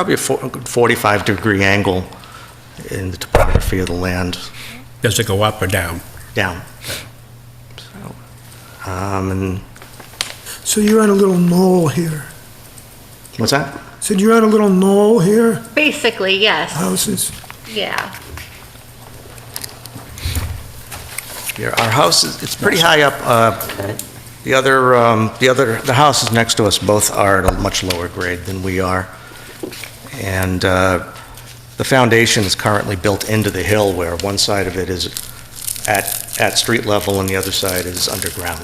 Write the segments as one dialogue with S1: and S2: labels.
S1: probably a 45-degree angle in the topography of the land
S2: Does it go up or down?
S1: down. So, um, and,
S3: So you're on a little knoll here.
S1: what's that?
S3: So you're on a little knoll here,
S4: Basically, yes,
S3: houses.
S4: yeah.
S1: Yeah, our house is, it's pretty high up. uh, The other, um, the other, the houses next to us both are at a much lower grade than we are. And uh, the foundation is currently built into the hill where one side of it is at, at street level and the other side is underground.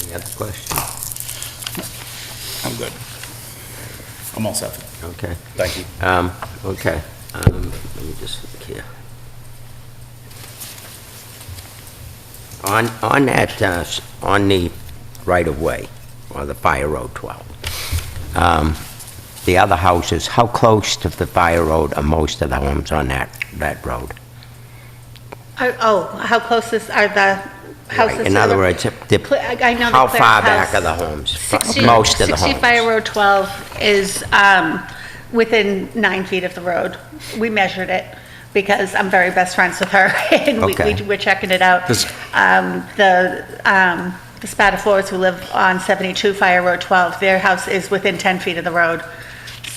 S5: Any other question?
S2: I'm good. I'm all set.
S5: Okay,
S2: Thank you.
S5: um, okay, um, let me just look here. On, on that, uh, s- on the right-of-way, or the Fire Road 12, um, the other houses, how close to the Fire Road are most of the homes on that, that road?
S4: Are- Oh, how close is, are the houses?
S5: In
S4: to
S5: other
S4: the-
S5: words, if the-
S4: Cle- I- I know the
S5: how
S4: Clarence
S5: far back
S4: house.
S5: are the homes? Fr-
S4: 60
S5: Most of the
S4: 60
S5: homes?
S4: Fire Road 12 is um, within nine feet of the road. We measured it because I'm very best friends with her, and we-
S5: Okay.
S4: we- we're checking it out.
S1: Does-
S4: Um, The um, the Spatafores who live on 72 Fire Road 12, their house is within 10 feet of the road,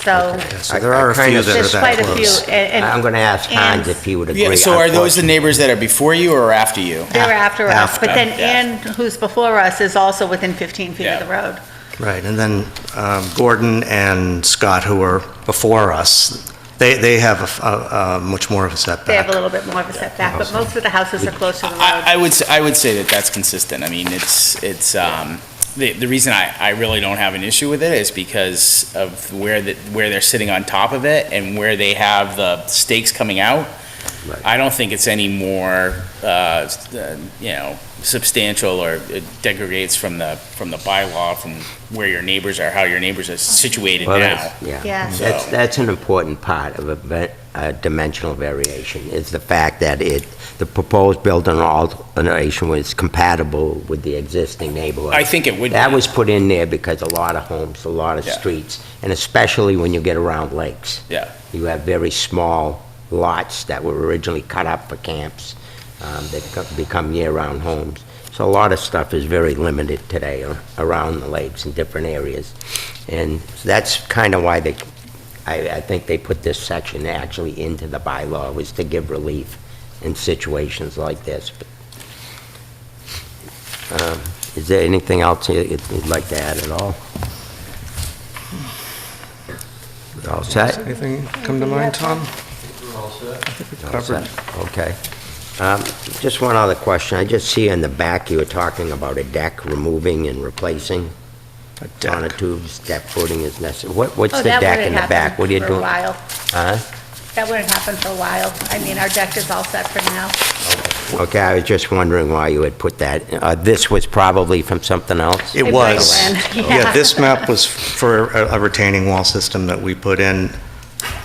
S4: so
S1: So there are a few that are
S4: there's quite
S1: that
S4: a few.
S1: close.
S4: and- and-
S5: I'm gonna ask
S4: and
S5: Hans if he would agree.
S6: Yeah, so are those the
S5: Unfortunately-
S6: neighbors that are before you or after you?
S4: They were after us, but then
S6: After, yeah.
S4: Ann, who's before us, is also within 15 feet of
S6: Yeah.
S4: the road.
S1: Right, and then um, Gordon and Scott, who are before us, they, they have a f- a, a much more of a setback.
S4: They have a little bit more of a setback, but most of the houses are close to the road.
S6: I, I would, s- I would say that that's consistent. I mean, it's, it's, um, the, the reason I, I really don't have an issue with it is because of where the, where they're sitting on top of it and where they have the stakes coming out.
S5: Right.
S6: I don't think it's any more, uh, s- uh, you know, substantial or it degrades from the, from the bylaw, from where your neighbors are, how your neighbors are situated
S5: Well,
S6: now.
S5: that's- Yeah.
S4: Yes.
S5: That's,
S6: So-
S5: that's an important part of a ve- a dimensional variation, is the fact that it, the proposed building alteration was compatible with the existing neighborhood.
S6: I think it would be.
S5: That was put in there because a lot of homes, a lot of
S6: Yeah.
S5: streets, and especially when you get around lakes.
S6: Yeah.
S5: You have very small lots that were originally cut up for camps, um, that co- become year-round homes. So a lot of stuff is very limited today a- around the lakes in different areas. And that's kind of why they, I, I think they put this section actually into the bylaw, was to give relief in situations like this. Um, Is there anything else you- you'd like to add at all? All set?
S1: Anything come to mind, Tom?
S5: All set. Okay. Um, Just one other question. I just see in the back, you were talking about a deck removing and replacing
S1: A deck.
S5: sonotubes, deck footing is necessary. What, what's
S4: Oh,
S5: the
S4: that
S5: deck in
S4: wouldn't
S5: the back?
S4: happen
S5: What are you
S4: For a
S5: doing?
S4: while.
S5: Huh?
S4: That wouldn't happen for a while. I mean, our deck is all set for now.
S5: Okay, I was just wondering why you had put that. Uh, This was probably from something else?
S1: It
S4: It
S1: was.
S4: breaks in,
S1: Yeah,
S4: yeah.
S1: this map was for a a retaining wall system that we put in,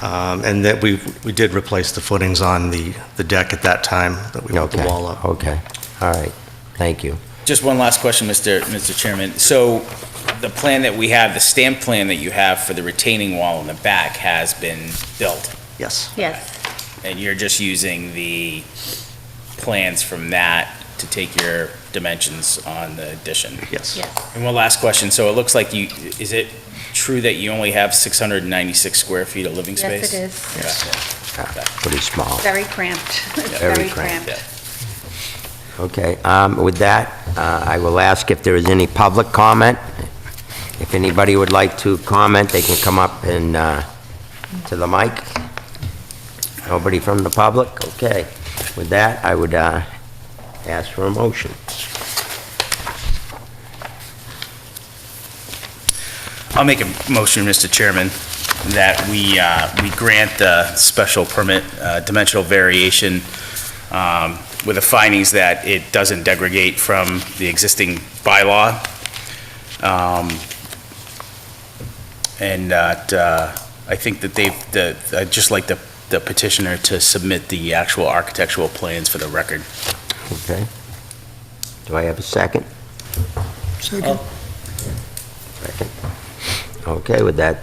S1: um, and that we, we did replace the footings on the, the deck at that time, that we put the
S5: Okay,
S1: wall up.
S5: Okay, all right. Thank you.
S6: Just one last question, Mr. Mr. Chairman. So the plan that we have, the stamp plan that you have for the retaining wall in the back has been built,
S1: Yes,
S4: Yes,
S6: and you're just using the plans from that to take your dimensions on the addition.
S1: yes.
S4: yes.
S6: And one last question. So it looks like you, is it true that you only have 696 square feet of living space?
S4: Yes, it is.
S5: Uh, Pretty small.
S4: Very cramped. It's
S5: Very
S4: very
S5: cramped.
S4: cramped.
S5: Okay, um, with that, uh, I will ask if there is any public comment. If anybody would like to comment, they can come up and, uh, to the mic. Nobody from the public? Okay. With that, I would uh, ask for a motion.
S6: I'll make a motion, Mr. Chairman, that we, uh, we grant the special permit, uh, dimensional variation, um, with the findings that it doesn't degrade from the existing bylaw. Um, And that, uh, I think that they've, the, I'd just like the the petitioner to submit the actual architectural plans for the record.
S5: Okay? Do I have a second?
S3: Second.
S5: Second. okay with that,